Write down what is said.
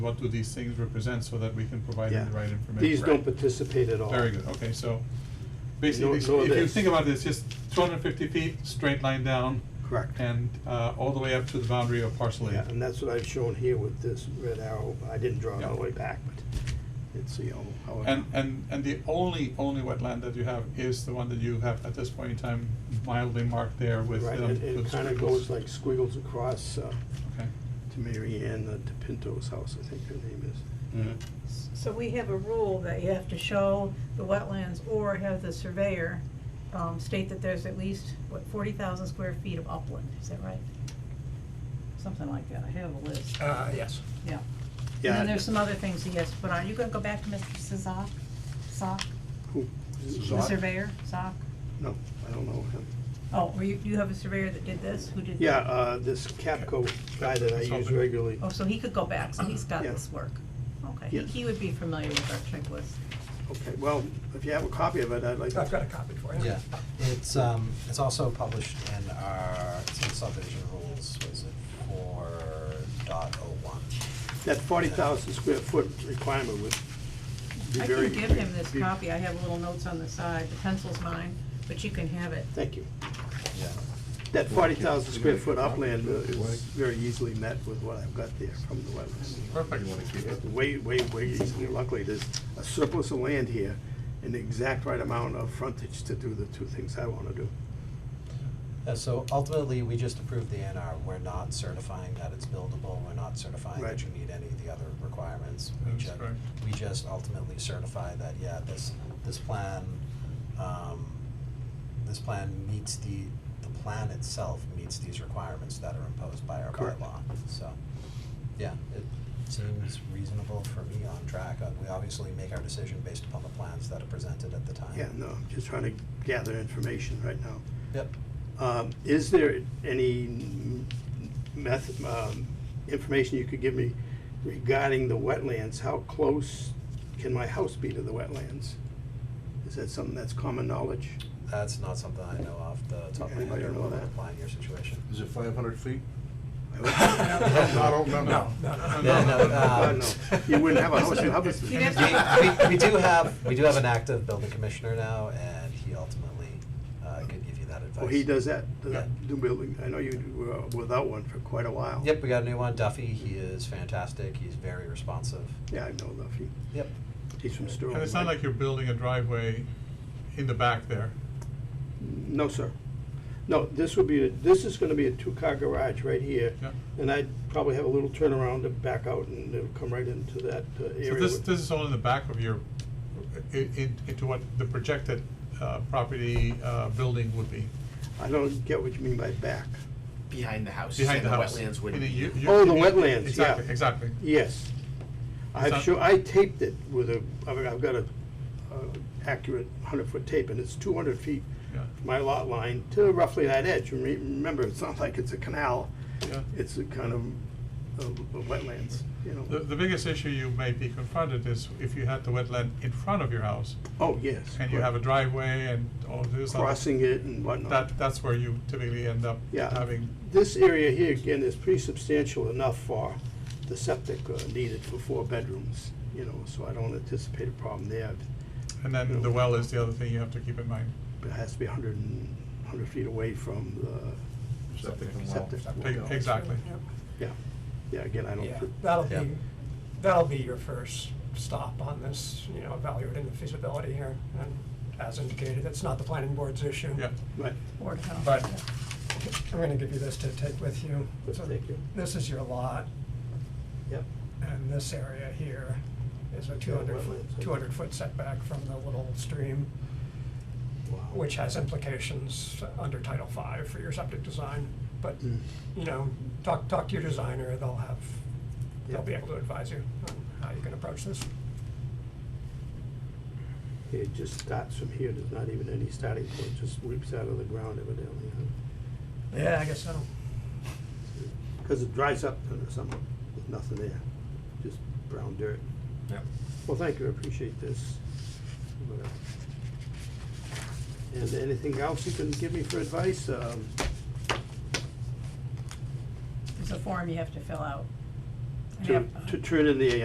what do these things represent so that we can provide them the Yeah. right information. These don't participate at all. Very good, Oh, okay, so No- basically, if no of you this. think about this, just two hundred and fifty feet, straight line down. Correct. And, uh, all the way up to the boundary of parcel Yeah, A. and that's what I've shown here with this red arrow. I didn't draw it all the Yeah. way back, but it's, you know, how. it- And, and, and the only, only wetland that you have is the one that you have at this point in time mildly marked there with, Right, um, it, it with kinda squiggles. goes like squiggles across, uh, Okay, to Mary Ann, uh, to Pinto's house, I think her name is. So we have a rule that you have to show the wetlands or have the surveyor um, state that there's at least, what, forty thousand square feet of upland, is that right? Something like that, I have a list, Uh, yes. yeah. And Yeah. then there's some other things he has to put on, you gonna go back to Mr. Sazak, Sock, Who? the surveyor, Sock? No, I don't know him. Oh, were you, you have a surveyor that did this, who did? Yeah, uh, this Capco guy that I use Consultant. regularly. Oh, so he could go back, so he's got Yeah. this work, okay, he, Yes. he would be familiar with our checklist. Okay, well, if you have a copy of it, I'd like. I've got a copy for you. Yeah, it's, um, it's also published in our, it's in subdivision rules, was it four dot oh one? That forty thousand square foot requirement would be I very. can give him this be- copy, I have little notes on the side, the pencil's mine, but you can have it. Thank you. Yeah, That forty thousand square foot upland uh, is very easily met with what I've got there from the wetlands. Perfect. You wanna keep it? Way, way, way easily, luckily, there's a surplus of land here and the exact right amount of frontage to do the two things I wanna do. Yeah, Uh, so ultimately, we just approved the NR. we're not certifying that it's buildable, we're not certifying that Right. you meet any of the other requirements. We That's ju- correct. We just ultimately certify that, yeah, this, this plan, um, this plan meets the, the plan itself meets these requirements that are imposed by our Correct. bylaw, so. Yeah, it seems reasonable for me on track, Uh, we obviously make our decision based upon the plans that are presented at the time. Yeah, no, I'm just trying to gather information right now. Yep. Um, Is there any meth, um, information you could give me regarding the wetlands? How close can my house be to the wetlands? Is that something that's common knowledge? That's not something I know off the top of my Okay, I head, don't or know will that. apply in your situation. Is it five hundred feet? I don't know. No, No, no, no, no. no, Uh, um, no, you wouldn't have a house in You'd have to- Hubbardston. We, we, we do have, we do have an active building commissioner now, and he ultimately, uh, could give you that advice. Well, he does that, does Yeah. that do building, I know you were without one for quite a while. Yep, we got a new one, Duffy, he is fantastic, he's very responsive, Yeah, I know Luffy, yep. he's from Sterling. and it's not right? like you're building a driveway in the back there. No, sir. No, this would be, a- this is gonna be a two-car garage right here. Yeah. And I'd probably have a little turnaround to back out and it'll come right into that uh, area. So this, with- this is all in the back of your, i- in, into what the projected, uh, property, uh, building would be. I don't get what you mean by back. Behind the house, Behind and the the house. wetlands In wouldn't a be. u- u- Oh, the u- wetlands, yeah. Exactly, exactly. Yes. I've not- sure, I taped it with a, I've I've got a uh, accurate hundred-foot tape and it's two hundred feet Yeah, from my lot line to roughly that edge. And re- Remember, it's not like it's a canal, yeah. it's a kind of uh, wetlands, you know. The, the biggest issue you may be confronted is if you had the wetland in front of your house Oh, yes. and you have a driveway and all of this. other- Crossing it and whatnot. That, that's where you typically end up Yeah. having, This area here, again, is pretty substantial enough for the septic uh, needed for four bedrooms, you know, so I don't anticipate a problem there. and then the well is the other thing you have to keep in mind. But it has to be hundred and, hundred feet away from the, Septic and well. Septic. E- Exactly. yeah, yeah, again, I Yeah, don't. that'll Yeah. be, that'll be your first stop on this, you know, evaluating the feasibility here. And as indicated, it's not the planning board's issue. Yeah. Right, Board of Health. But I'm gonna give you this to take with you. Let's So take it. This is your lot, yep, and this area here is a two hundred foot, wetlands. two hundred foot setback from the little stream, wow. which has implications under Title V for your septic design. But, Mm. you know, talk, talk to your designer, they'll have, they'll be Yeah. able to advise you on how you can approach this. It just starts from here, there's not even any starting point, just leaps out of the ground evidently, huh? Yeah, I guess so. Cause it dries up in the summer, there's nothing there, just brown dirt. Yep. Well, thank you, I appreciate this. And anything else you can give me for advice? Um, There's a form you have to fill out. to, to turn in the uh,